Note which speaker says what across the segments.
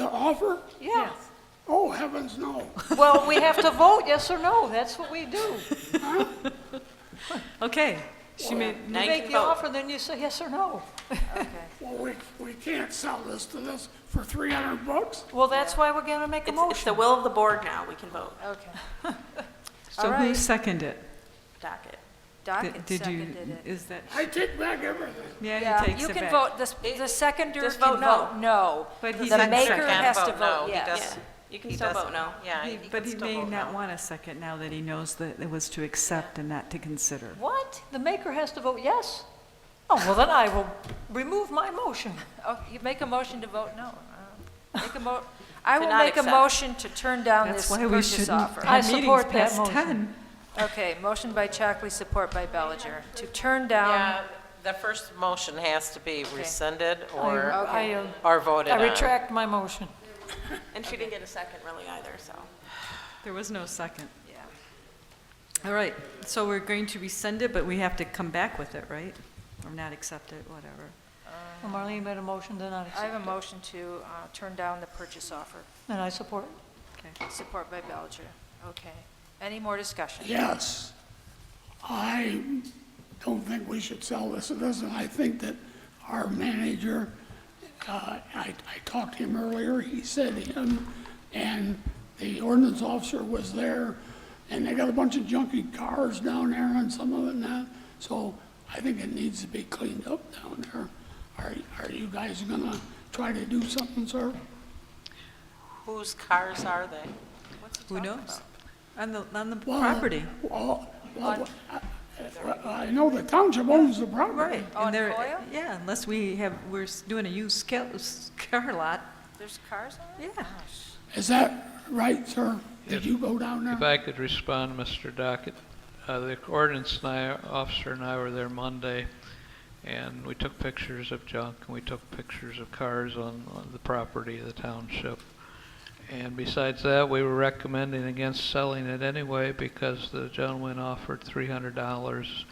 Speaker 1: offer?
Speaker 2: Yeah.
Speaker 1: Oh, heavens, no.
Speaker 2: Well, we have to vote yes or no. That's what we do.
Speaker 3: Okay, she made,
Speaker 2: You
Speaker 4: Now you
Speaker 2: make
Speaker 4: can
Speaker 2: the
Speaker 4: vote.
Speaker 2: offer, then you say yes or no.
Speaker 1: Well, we, we can't sell this to this for 300 bucks.
Speaker 2: Well, that's why we're gonna make a
Speaker 4: It's, it's the
Speaker 2: motion.
Speaker 4: will of the board now, we can vote,
Speaker 5: Okay.
Speaker 3: so who
Speaker 5: Alright.
Speaker 3: seconded it?
Speaker 4: docket.
Speaker 3: Th-
Speaker 5: Docket
Speaker 3: Did you?
Speaker 5: seconded it.
Speaker 3: Is that,
Speaker 1: I take back everything.
Speaker 3: yeah,
Speaker 5: Yeah,
Speaker 3: he takes
Speaker 5: you
Speaker 3: it
Speaker 5: can
Speaker 3: back.
Speaker 5: vote, this- the seconder
Speaker 4: Just
Speaker 5: can
Speaker 4: vote no.
Speaker 5: vote no.
Speaker 3: But he
Speaker 5: The
Speaker 3: didn't
Speaker 5: maker
Speaker 3: second.
Speaker 5: has to
Speaker 6: Can't vote no.
Speaker 5: vote
Speaker 6: He
Speaker 5: yes.
Speaker 6: doesn't.
Speaker 4: Yeah, you can
Speaker 6: He
Speaker 4: still vote
Speaker 6: doesn't-
Speaker 4: no.
Speaker 6: Yeah.
Speaker 3: He-
Speaker 6: can
Speaker 3: But he
Speaker 6: still
Speaker 3: may
Speaker 6: vote
Speaker 3: not
Speaker 6: no.
Speaker 3: want a second now that he knows that it was to accept and not to consider.
Speaker 2: What? The maker has to vote yes? Oh, well, then I will remove my motion.
Speaker 5: Oh, You make a motion to vote no. Uh, Make a mo, I will
Speaker 4: not
Speaker 5: make a
Speaker 4: accept.
Speaker 5: motion to turn down this
Speaker 3: That's why we
Speaker 5: purchase
Speaker 3: shouldn't
Speaker 5: offer.
Speaker 2: I
Speaker 3: have meetings
Speaker 2: support that
Speaker 3: past
Speaker 2: motion.
Speaker 3: 10.
Speaker 5: Okay, motion by Chockley, support by Bellinger, to turn down,
Speaker 6: Yeah, the first motion has to be rescinded
Speaker 2: I-
Speaker 6: or,
Speaker 2: I, uh,
Speaker 6: or voted on.
Speaker 2: I retract my motion.
Speaker 4: And she didn't get a second really either, so.
Speaker 3: There was no second. All right, so we're going to rescind it, but we have to come back with it, right? Or not accept it, whatever.
Speaker 2: Well, Marlene made a motion, then I
Speaker 5: I
Speaker 2: accept.
Speaker 5: have a motion to uh, turn down the purchase offer,
Speaker 2: Then I support.
Speaker 5: support by Bellinger. Okay. Any more discussion?
Speaker 1: Yes. I don't think we should sell this to this, and I think that our manager, uh, I, I talked to him earlier, he said him, and the ordinance officer was there, and they got a bunch of junky cars down there and some of it not, so I think it needs to be cleaned up down there. Are, are you guys gonna try to do something, sir?
Speaker 6: Whose cars are they?
Speaker 3: Who knows? On the, on the
Speaker 1: Well,
Speaker 3: property,
Speaker 1: Well, well, I- I I know the township owns the property.
Speaker 3: right. and
Speaker 5: On
Speaker 3: they're-
Speaker 5: Coyle?
Speaker 3: Yeah, unless we have, we're s- doing a used ca- s- car lot,
Speaker 5: There's cars on it?
Speaker 3: yeah.
Speaker 1: Is that right, sir? Did you go down
Speaker 7: If
Speaker 1: there?
Speaker 7: I could respond, Mr. Dockett, uh, the ordinance and I, officer and I were there Monday, and we took pictures of junk, and we took pictures of cars on, on the property of the township. And besides that, we were recommending against selling it anyway, because the gentleman offered three hundred dollars.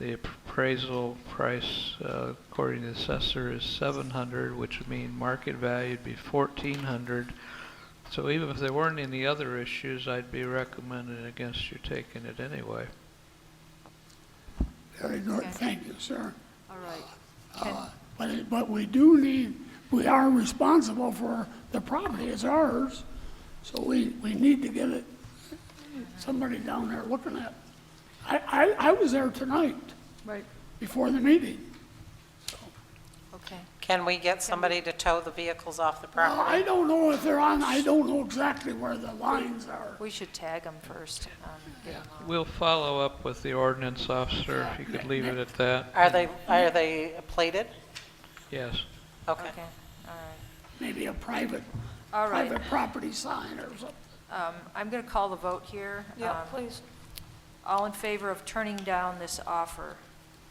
Speaker 7: The appraisal price, uh, according to the assessor, is seven hundred, which would mean market value would be fourteen hundred. So even if there weren't any other issues, I'd be recommending against you taking it anyway.
Speaker 1: Very good, thank you, sir.
Speaker 5: All right.
Speaker 1: Uh, But, it- but we do need, we are responsible for, the property It's ours, so we, we need to get it, somebody down there looking at. it. I, I, I was there tonight.
Speaker 3: Right.
Speaker 1: Before the meeting.
Speaker 5: Okay.
Speaker 6: Can we get somebody to tow the vehicles off the
Speaker 1: Well,
Speaker 6: property?
Speaker 1: I don't know if they're on, I don't know exactly where the lines are.
Speaker 5: We should tag them first. um, get 'em all.
Speaker 7: We'll follow up with the ordinance officer, if you could leave it at that.
Speaker 6: Are they, are they plated?
Speaker 7: Yes.
Speaker 6: Okay.
Speaker 5: Okay, all right.
Speaker 1: Maybe a private,
Speaker 5: All right.
Speaker 1: private property sign or something.
Speaker 5: Um, I'm going to call the vote here.
Speaker 2: Yeah,
Speaker 5: Um,
Speaker 2: please.
Speaker 5: All in favor of turning down this offer,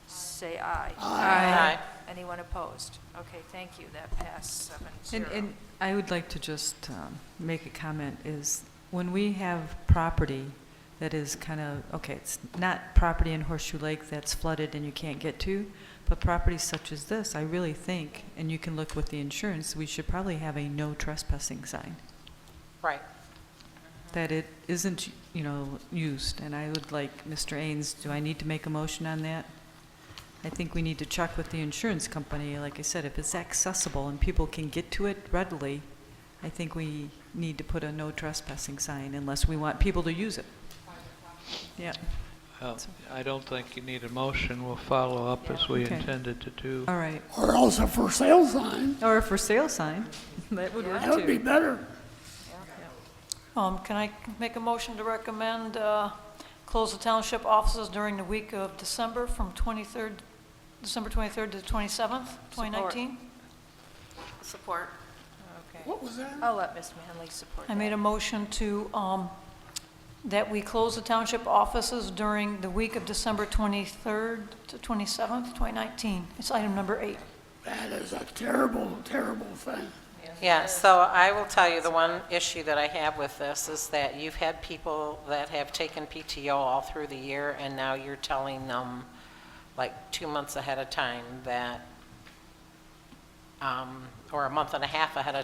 Speaker 5: say aye.
Speaker 6: Aye.
Speaker 5: Anyone opposed? Okay, thank you, that passed seven
Speaker 3: And,
Speaker 5: zero.
Speaker 3: and I would like to just um, make a comment is, when we have property that is kind of, okay, it's not property in Horseshoe Lake that's flooded and you can't get to, but property such as this, I really think, and you can look with the insurance, we should probably have a no trespassing sign,
Speaker 6: Right.
Speaker 3: that it isn't, you know, used. And I would like, Mr. Ains, do I need to make a motion on that? I think we need to check with the insurance company. Like I said, if it's accessible and people can get to it readily, I think we need to put a no trespassing sign unless we want people to use it. Yeah,
Speaker 7: Well, I don't think you need a motion. We'll follow up as we
Speaker 3: Okay.
Speaker 7: intended to do.
Speaker 3: all right.
Speaker 1: Or else a for sale sign.
Speaker 3: Or a for sale sign, that would work
Speaker 1: That would be
Speaker 3: too.
Speaker 1: better.
Speaker 2: Um, Can I make a motion to recommend uh, close the township offices during the week of December from 23rd, December 23rd to 27th, 2019?
Speaker 4: Support.
Speaker 5: Okay.
Speaker 1: What was that?
Speaker 5: I'll let Ms. Manley support
Speaker 2: I made a
Speaker 5: that.
Speaker 2: motion to, um, that we close the township offices during the week of December 23rd to 27th, 2019. It's item number eight.
Speaker 1: That is a terrible, terrible thing.
Speaker 6: Yeah, so I will tell you, the one issue that I have with this is that you've had people that have taken PTO all through the year, and now you're telling them, like, two months ahead of time that, um, or a month and a half ahead of